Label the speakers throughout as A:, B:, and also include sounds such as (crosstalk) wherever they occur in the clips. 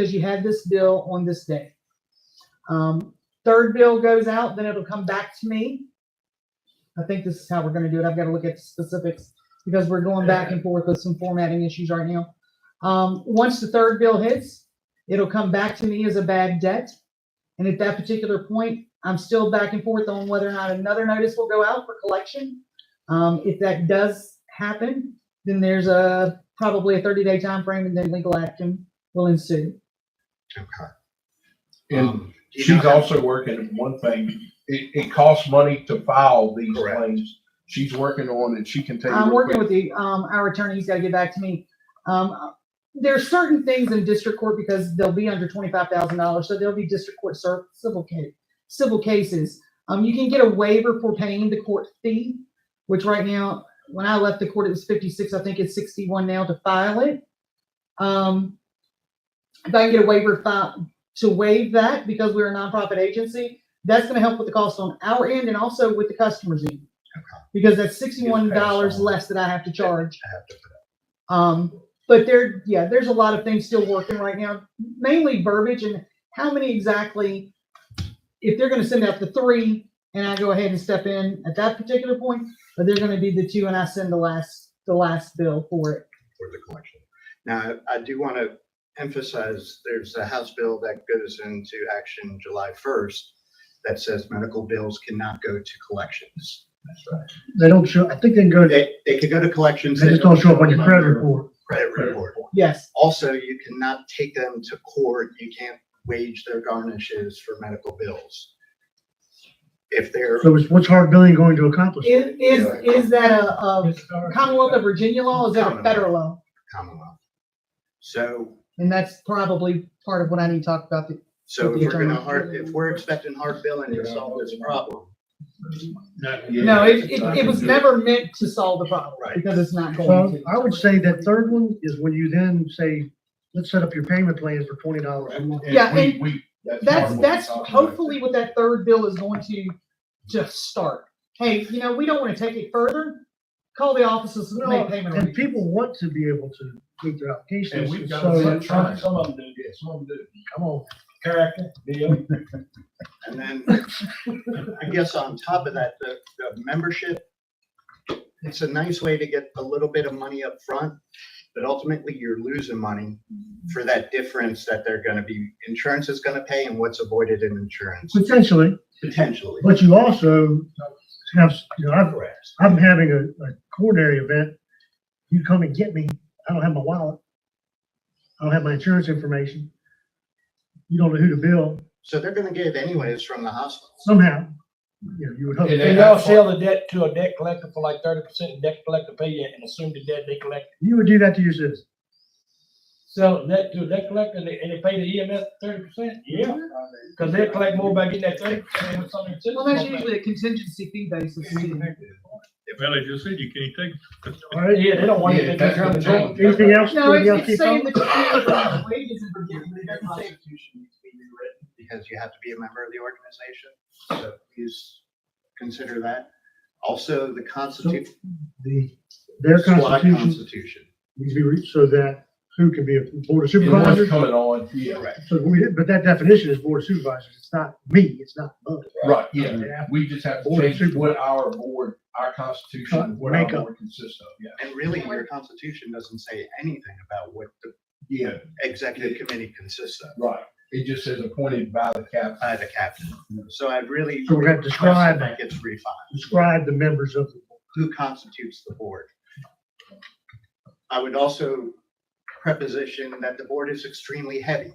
A: because you had this bill on this day. Um, third bill goes out, then it'll come back to me. I think this is how we're gonna do it. I've gotta look at the specifics because we're going back and forth with some formatting issues right now. Um, once the third bill hits, it'll come back to me as a bad debt. And at that particular point, I'm still back and forth on whether or not another notice will go out for collection. Um, if that does happen, then there's a, probably a thirty day time frame, and then legal action will ensue.
B: Okay. And
C: Um, do you
B: she's
C: know-
B: also working on one thing, it, it costs money to file these
C: Correct.
B: claims. She's working on it, she can tell you.
A: I'm
B: real
A: working
B: quick.
A: with the, um, our attorney, he's gotta get back to me. Um, there are certain things in district court because they'll be under twenty-five thousand dollars, so there'll be district court cer- civil case, civil cases. Um, you can get a waiver for paying the court fee, which right now, when I left the court, it was fifty-six, I think it's sixty-one now to file it. Um, if I can get a waiver fi- to waive that because we're a nonprofit agency, that's gonna help with the cost on our end and also with the customer's end. Because that's sixty-one dollars
B: on.
A: less that I have to charge.
B: I have to put
A: Um, but there, yeah, there's a lot of things still working right now, mainly verbiage and how many exactly, if they're gonna send out the three and I go ahead and step in at that particular point, or they're gonna be the two and I send the last, the last bill for it.
C: for the collection. Now, I do want to emphasize, there's a House bill that goes into action July 1st that says medical bills cannot go to collections. That's right.
D: They don't show, I think they can go, they
C: They, they could go to collections.
D: just don't show up on your credit report.
C: Credit report.
A: Yes,
C: Also, you cannot take them to court. You can't wage their garnishes for medical bills. If they're,
D: So it's, what's hard billing going to accomplish?
A: is, is, is that a, a Commonwealth of
D: Commonwealth.
A: Virginia law, is that a federal law?
C: Commonwealth. So
A: And that's probably part of what I need to talk about. the-
C: So
A: With
C: if
A: the
C: we're gonna
A: attorney.
C: hard, if we're expecting hard billing to solve this problem,
B: Yeah.
A: No, it, it, it was never meant to solve the problem
C: Right.
A: because it's not going
D: So
A: to.
D: I would say that third one is when you then say, let's set up your payment plans for twenty dollars a month.
B: it.
A: Yeah,
B: we-
A: and
B: we- part
A: That's,
B: of what
A: that's
B: we're talking about.
A: hopefully what that third bill is going to just start. Hey, you know, we don't want to take it further. Call the offices and make payment.
D: And
A: arrangements.
D: people want to be able to meet their
B: And
D: applications.
B: we've got
D: So
B: some trying.
E: Some of them do, yeah, some of them do. Come on, character, deal.
C: and then I guess on top of that, the, the membership, it's a nice way to get a little bit of money up front, but ultimately you're losing money for that difference that they're gonna be, insurance is gonna pay and what's avoided in insurance,
D: potentially,
C: potentially.
D: but you also have, you know, I've,
C: Correct.
D: I'm having a, a coronary event. You come and get me. I don't have my wallet. I don't have my insurance information. You don't know who to bill.
C: So they're gonna get it anyways from the hospital.
D: somehow, you know, you would hope.
B: It
E: They
B: ain't-
D: that
E: all sell the debt to a debt collector for like thirty percent, and debt collector pay you and assume the debt they collect.
D: You would do that to your citizens.
E: Sell the debt to a debt collector and they, and they pay the EMS thirty percent, yeah, cause they collect more by getting that thirty percent than something.
A: Well, that's usually a contingency fee basis. too.
F: Well, as you said, you can't take
D: All right?
E: Yeah, they don't want
B: Yeah,
E: it. They
B: that's
E: just run the
B: the
E: joint.
B: joint.
D: Anything else?
A: No,
D: Anything else
A: it's,
D: keep
A: it's saying
D: going?
A: that. you can't raise wages in Virginia,
D: (laughs)
A: but it doesn't
C: The
A: say-
C: Constitution needs to be rewritten because you have to be a member of the organization, so please consider that. Also, the Constitution.
D: The, their constitution needs to be reached so that who can be a board of
B: And what's
D: supervisors.
B: coming on, yeah,
C: Correct.
D: So we, but that definition is board of supervisors. It's not me, it's not us.
B: right, yeah,
D: Yeah.
B: we just have to
D: Board of
B: change what our board, our constitution, what our
D: Makeup.
B: board consists of, yeah.
C: And really, your Constitution doesn't say anything about what the
B: Yeah,
C: executive committee consists of
B: right, it just says appointed by the cap.
C: by the captain. So I really.
D: So we're gonna
C: request
D: describe-
C: That gets refined.
D: Describe the members of the board.
C: Who constitutes the board? I would also preposition that the board is extremely heavy.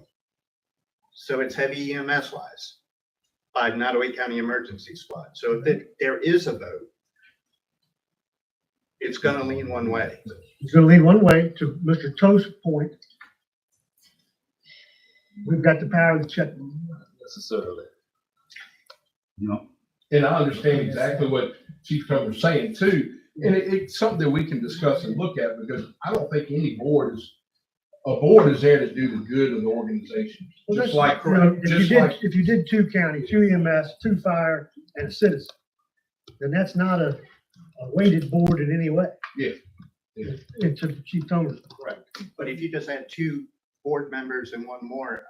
C: So it's heavy EMS wise by Nottaway County Emergency Squad. So if there- there is a vote, it's gonna lean one way.
D: It's gonna lead one way to Mr. Toast's point. We've got the power to check.
F: necessarily.
B: And I understand exactly what Chief Cumber's saying too, and it, it's something that we can discuss and look at, because I don't think any board is, a board is there to do the good of the organization,
D: Well,
B: just
D: that's-
B: like,
D: You know, If you
B: just
D: did,
B: like,
D: if you did two county, two EMS, two fire, and a citizen, then that's not a, a weighted board in any way.
B: Yeah. Yeah.
D: It's a chief toner.
C: But if you just had two board members and one more.